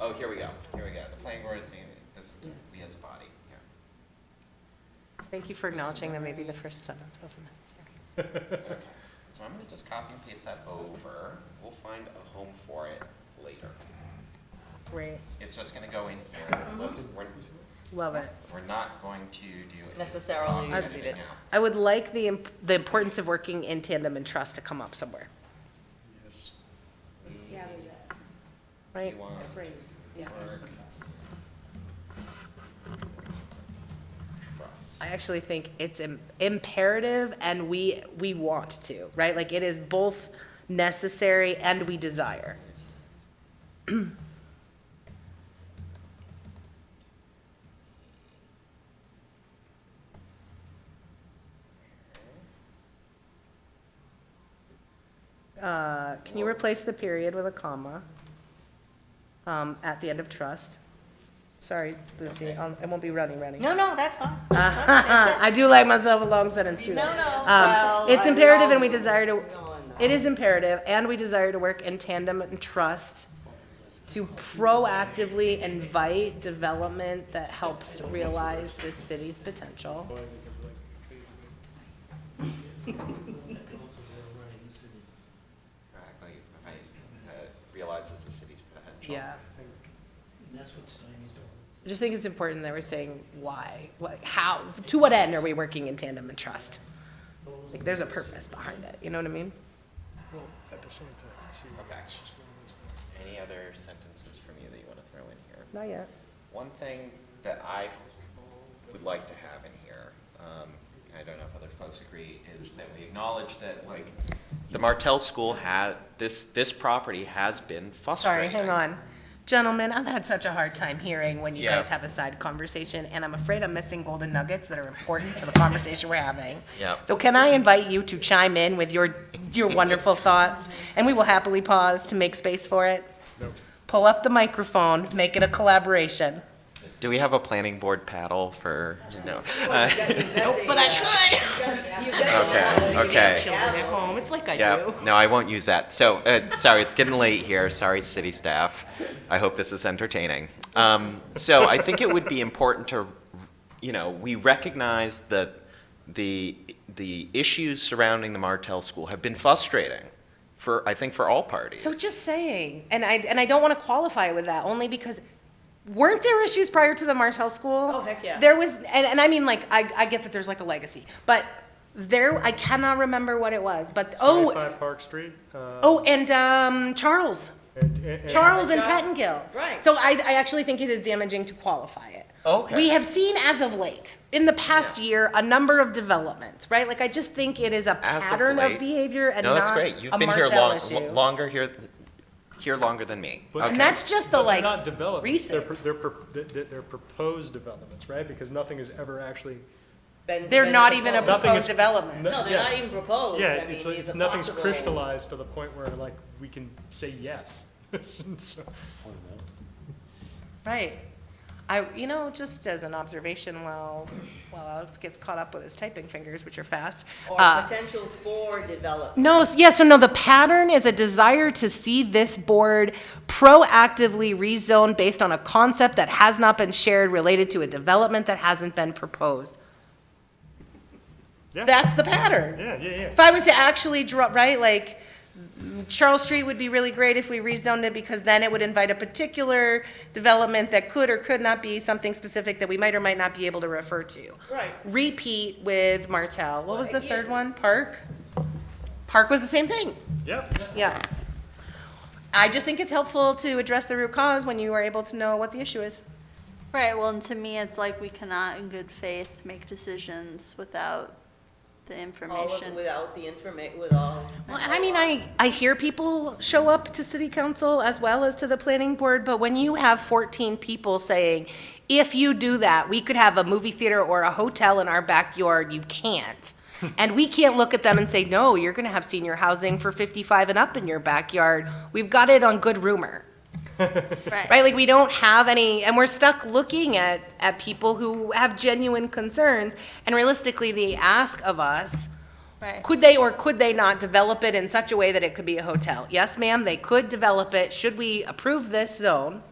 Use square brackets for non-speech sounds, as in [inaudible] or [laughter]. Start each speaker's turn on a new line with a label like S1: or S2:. S1: Oh, here we go, here we go. The planning board is, this, we as a body, yeah.
S2: Thank you for acknowledging that maybe the first sentence wasn't necessary.
S1: Okay. So I'm gonna just copy and paste that over. We'll find a home for it later.
S2: Great,
S1: It's just gonna go in here. Let's- We're,
S2: love it.
S1: we're not going to do. a
S3: Necessarily
S1: copy
S2: I'd-
S1: editing now.
S2: I would like the, imp- the importance of working in tandem and trust to come up somewhere,
S4: Yes.
S2: right?
S1: You want
S2: phrase,
S1: work. Trust.
S2: I actually think it's im- imperative and we, we want to, right? Like it is both necessary and we desire. [clears throat] Uh, Can you replace the period with a comma um, at the end of trust? Sorry, Lucy, I'll- I won't be running, running.
S3: No, no, that's
S2: [laughs]
S3: fine. That's fine. Makes
S2: Uh-huh. I
S3: sense.
S2: do like myself a long sentence too.
S3: No,
S2: though.
S3: no,
S2: Um,
S3: well,
S2: It's
S3: I-
S2: imperative and we
S3: no,
S2: desire to,
S3: no, no.
S2: it is imperative and we desire to work in tandem and trust to proactively invite development that helps realize this city's potential.
S4: Why? Because like crazy.
S1: Exactly. If I, uh, Realizes the city's potential.
S2: Yeah.
S5: That's what Steiny's doing.
S2: I just think it's important that we're saying why, what, how, to what end are we working in tandem and trust? Like, there's a purpose behind it, you know what I mean?
S4: Well, at the same time, too.
S1: Okay.
S4: It's just one of those things.
S1: Any other sentences from you that you wanna throw in here?
S2: Not yet.
S1: One thing that I would like to have in here, um, I don't know if other folks agree, is that we acknowledge that, like, the Martell School had, this, this property has been
S2: Sorry,
S1: frustrating.
S2: hang on. Gentlemen, I've had such a hard time hearing when you
S1: Yeah.
S2: guys have a side conversation, and I'm afraid I'm missing golden nuggets that are important to the conversation we're having.
S1: Yep.
S2: So can I invite you to chime in with your, your
S1: [laughs]
S2: wonderful thoughts, and we will happily pause to make space for it? Pull up the microphone, make it a collaboration.
S1: Do we have a planning board paddle for, no?
S2: But I could.
S1: Okay, okay.
S2: Children at home, it's like I
S1: Yeah,
S2: do.
S1: no, I won't use that. So, uh, sorry, it's getting late here. Sorry, city staff. I hope this is entertaining. Um, so I think it would be important to, you know, we recognize that the, the issues surrounding the Martell School have been frustrating for, I think, for all parties.
S2: So just saying, and I, and I don't want to qualify with that, only because weren't there issues prior to the Martell School?
S3: Oh, heck yeah.
S2: There was, and, and I mean, like, I, I get that there's like a legacy, but there, I cannot remember what it was, but, oh,
S6: 75 Park Street. uh,
S2: oh, and, um, Charles,
S6: and- and-
S2: Charles and
S3: Yeah.
S2: Pettingill.
S3: Right.
S2: So I, I actually think it is damaging to qualify it.
S1: Okay.
S2: We have seen as of late, in the past year, a number of developments, right? Like, I just think it is a
S1: As of
S2: pattern of
S1: late?
S2: behavior and
S1: No, that's
S2: not
S1: great.
S2: a
S1: You've been here
S2: Martell
S1: long,
S2: issue.
S1: lo- longer here, here longer than me.
S6: But-
S1: Okay.
S2: And that's just the
S6: But they're
S2: like
S6: not developments. They're,
S2: recent.
S6: pro- they're, pro- they're- they're they're proposed developments, right? Because nothing is ever actually.
S3: Been-
S2: They're
S3: been
S2: not even a
S3: proposed.
S6: Nothing
S2: proposed
S6: is-
S2: development.
S3: No, they're
S6: yeah.
S3: not even proposed.
S6: Yeah,
S3: I mean,
S6: it's,
S3: these
S6: it's,
S3: are
S6: nothing's
S3: possible.
S6: crystallized to the point where like, we can say yes. [laughs] So-
S2: Right. I, you know, just as an observation, while, while Alex gets caught up with his typing fingers, which are fast.
S3: Or
S2: uh,
S3: potential for development.
S2: No, s- yeah, so no, the pattern is a desire to see this board proactively rezone based on a concept that has not been shared related to a development that hasn't been proposed.
S6: Yeah.
S2: That's the pattern.
S6: Yeah, yeah, yeah.
S2: If I was to actually draw, right, like, mm, Charles Street would be really great if we rezoned it, because then it would invite a particular development that could or could not be something specific that we might or might not be able to refer to.
S3: Right.
S2: Repeat with Martell. What was the third one? Park? Park was the same thing,
S6: Yep.
S2: yeah. I just think it's helpful to address the root cause when you are able to know what the issue is.
S7: Right, well, and to me, it's like we cannot in good faith make decisions without the
S3: All of,
S7: information.
S3: without the informa, with all.
S2: Well, I mean, I, I hear people show up to city council as well as to the planning board, but when you have fourteen people saying, if you do that, we could have a movie theater or a hotel in our backyard, you can't. And we can't look at them and say, no, you're gonna have senior housing for fifty-five and up in your backyard. We've got it on good rumor, right? Like, we don't have any, and we're stuck looking at, at people who have genuine concerns. And realistically, the ask of us
S7: Right,
S2: could they or could they not develop it in such a way that it could be a hotel? Yes, ma'am, they could develop it. Should we approve this zone?